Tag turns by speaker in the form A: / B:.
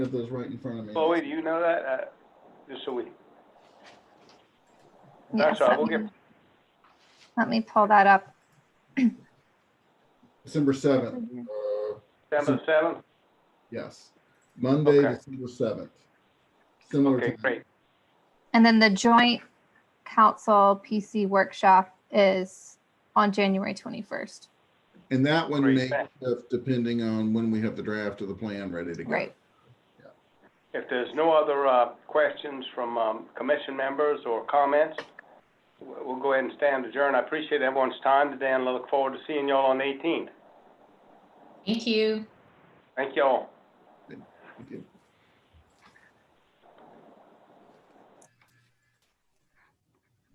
A: have those right in front of me.
B: Chloe, do you know that? Uh, Just so we,
C: Yes,
B: sorry,
C: let
B: we'll get-
C: me- Let me pull that up.
A: December seventh, uh,
B: December the seventh?
A: yes, Monday,
B: Okay.
A: December seventh. Similar
B: Okay,
A: to,
B: great.
C: And then the joint council PC workshop is on January 21st.
A: and that one
B: Great,
A: may
B: thanks.
A: shift depending on when we have the draft of the plan ready to go.
C: Right.
B: If there's no other uh, questions from um, commission members or comments, w- we'll go ahead and stand adjourned. I appreciate everyone's time today and I look forward to seeing y'all on the eighteenth.
D: Thank you.
B: Thank y'all.
A: Thank you.